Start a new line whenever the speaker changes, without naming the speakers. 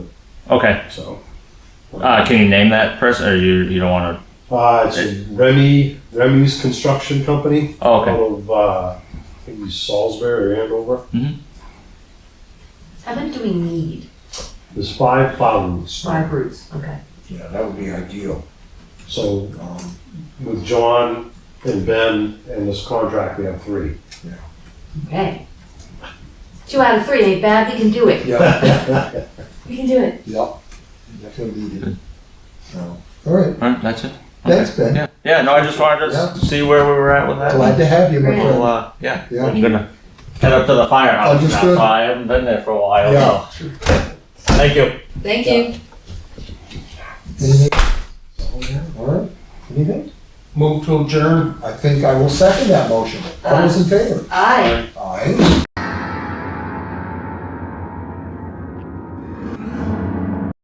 Okay.
So
Uh, can you name that person, or you you don't want to?
uh, it's Remy Remy's Construction Company
Oh, okay.
out of uh, maybe Salisbury or Andover.
How many do we need?
There's five plow rooms.
Five routes, okay.
Yeah, that would be ideal.
So
Um,
with John and Ben and this contract, we have three.
Okay. Two out of three ain't bad, we can do it.
yeah,
We can do it.
yeah, definitely needed. So, All right,
All right, that's it.
thanks, Ben.
Yeah. Yeah. No, I just wanted to
Yeah.
see where we were at with that.
Glad to have you, my
Great.
Well,
friend.
uh, yeah.
Yeah.
I'm gonna head up to the firehouse now.
Understood.
So I haven't been there for a while.
Yeah.
so. Thank you.
Thank you.
Anything? All right, anything?
Move to adjourn.
I think I will second that motion. All those in favor?
Aye.
Aye.